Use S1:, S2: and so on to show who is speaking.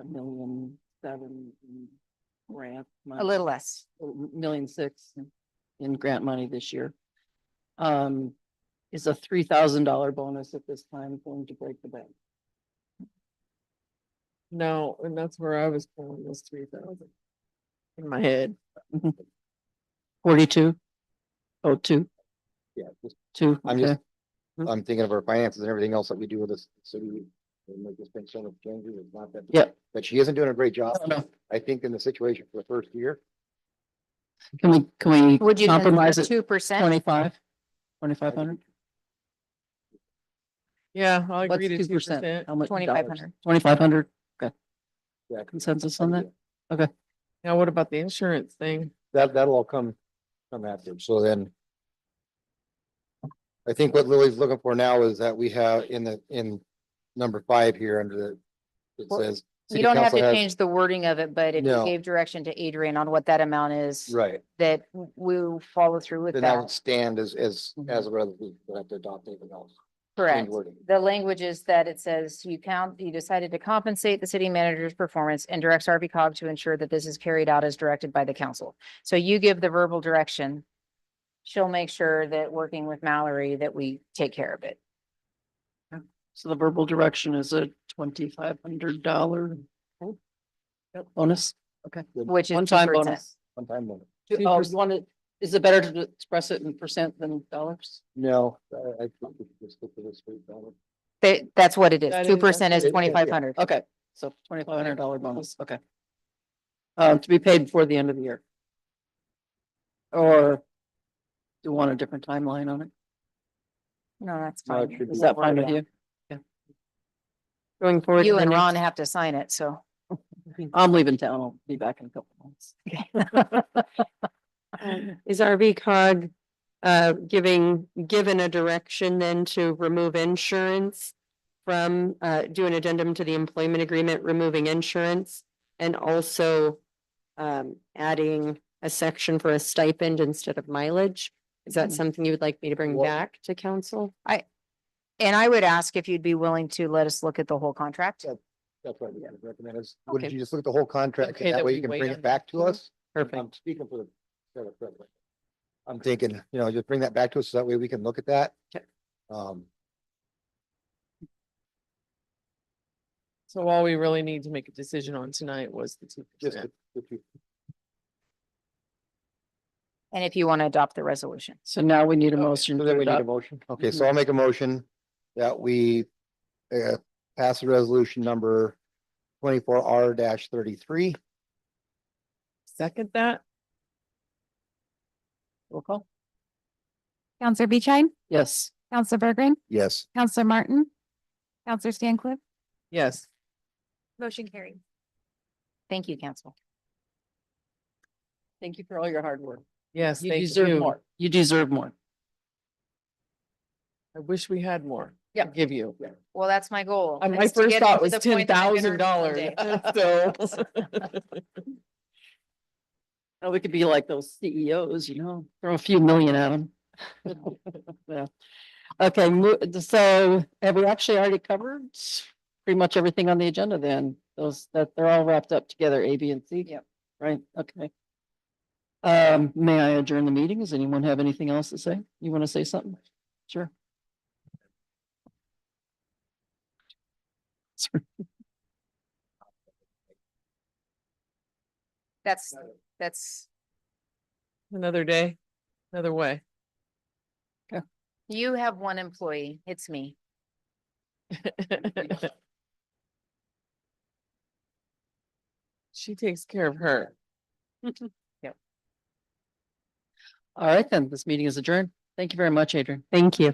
S1: a million seven in grant.
S2: a
S1: money-
S2: little less.
S1: a million six in- in grant money this year. Um, is a three thousand dollar bonus at this time going to break the bank?
S3: No, and that's where I was pulling this three thousand. In my head.
S1: Forty-two? Oh, two,
S4: Yeah, just-
S2: Mm-hmm.
S1: two,
S4: I'm just,
S1: okay, Hmm.
S4: I'm thinking of our finances and everything else that we do with this city. we Make this big sort of changes, it's not that.
S1: Yep.
S4: But she isn't doing a great job.
S1: No, no.
S4: I think in the situation for the first year,
S1: can we, can we
S2: Would you
S1: compromise
S2: consider
S1: at
S2: two percent?
S1: twenty-five? Twenty-five hundred?
S3: Yeah, I'll agree
S1: What's
S3: to
S1: two
S3: two
S1: percent?
S3: percent.
S1: How much?
S2: Twenty-five hundred.
S1: Twenty-five hundred, okay.
S4: Yeah.
S1: Consensus on that?
S3: Now, what about the insurance thing?
S4: that, that'll all come, come after, so then. I think what Lily's looking for now is that we have in the, in number five here under the, it
S2: Well,
S4: says.
S2: You
S4: "City
S2: don't have
S4: council
S2: to
S4: has-"
S2: change the wording of it, but if you
S4: No.
S2: gave direction to Adrian on what that amount is,
S4: Right,
S2: that w- we'll follow through with
S4: then that would
S2: that.
S4: stand as, as,
S1: Mhm.
S4: as a resolution, we'll have to adopt anything else. change
S2: Mm-hmm. Correct.
S4: wording.
S2: The language is that it says you count, you decided to compensate the city manager's performance and directs RV cog to ensure that this is carried out as directed by the council. So you give the verbal direction. She'll make sure that working with Mallory, that we take care of it.
S1: So the verbal direction is a twenty-five hundred dollar bonus,
S2: Which is
S1: one-time
S2: 2%.
S1: bonus.
S4: One time limit.
S3: Two
S1: Oh,
S3: perc-
S1: one, is it better to express it in percent than dollars?
S4: No, I, I think we should just stick to this rate, Donna.
S2: They, that's what it is.
S3: That is-
S2: Two percent is
S4: that's it, yeah.
S2: twenty-five hundred.
S3: Oh,
S1: Okay, so twenty-five hundred dollar bonus, okay. Uh, to be paid before the end of the year. Or do you want a different timeline on it?
S2: No, that's
S4: No, it
S2: fine.
S4: should
S2: We
S1: Is
S2: can
S1: that fine
S2: work
S1: with you?
S2: it
S3: Going
S2: out.
S3: forward.
S2: You
S3: to the
S2: and
S3: next-
S2: Ron have to sign it, so.
S1: I'm leaving town, I'll be back in a couple months.
S3: Is RV cog, uh, giving, given a direction then to remove insurance? From, uh, do an addendum to the employment agreement, removing insurance and also. Um, adding a section for a stipend instead of mileage. Is that
S1: Mhm.
S3: something you would like me to bring
S4: Well-
S3: back to council?
S2: And I would ask if you'd be willing to let us look at the whole contract.
S4: Yeah. That's what I would recommend is,
S3: Okay.
S4: would you just look at the whole contract,
S3: Okay,
S4: and that
S3: that
S4: way
S3: we
S4: you can
S3: wait
S4: bring
S3: on
S4: it
S3: that.
S4: back to
S3: Mhm.
S4: us?
S3: Perfect.
S4: I'm speaking for the. federal government. I'm thinking, you know, just bring that back to us, so that way we can look at that.
S3: Okay.
S4: Um,
S5: So all we really need to make a decision on tonight was the two
S4: just.
S5: percent.
S4: if you-
S2: And if you want to adopt the resolution.
S1: So now we need a
S4: Okay,
S1: motion
S4: so
S1: to
S4: then we need a
S1: adopt.
S4: motion. Okay,
S3: Mm-hmm.
S4: so I'll make a motion that we uh, pass the resolution number twenty-four R thirty-three.
S3: Second that?
S1: Roll call?
S6: Counselor Beechein,
S1: Yes.
S6: Counselor Bergeron,
S4: Yes.
S6: Counselor Martin, Counselor Stancliff.
S3: Yes.
S6: Motion carried.
S2: Thank you, council.
S1: Thank you for all your hard work.
S3: Yes,
S1: You deserve more. You deserve more.
S3: I wish we had more.
S1: Yeah.
S3: Give you.
S2: Well, that's my goal.
S3: Uh, My
S2: is to
S3: first
S2: get it
S3: thought
S2: to
S3: was
S2: the
S3: ten
S2: point that I can
S3: thousand
S2: earn
S3: dollars,
S2: it
S3: so.
S1: Oh, we could be like those CEOs, you know, throw a few million at them. Yeah. Okay, mo- so have we actually already covered pretty much everything on the agenda then? Those, that they're all wrapped up together, A, B, and C?
S2: Yep.
S1: Right, okay. Um, may I adjourn the meeting? Does anyone have anything else to say? You want to say something? Sure.
S2: That's, that's,
S3: Another day, another way.
S2: you have one employee. It's me.
S3: She takes care of her.
S1: All right, then, this meeting is adjourned. Thank you very much, Adrian.
S3: Thank you.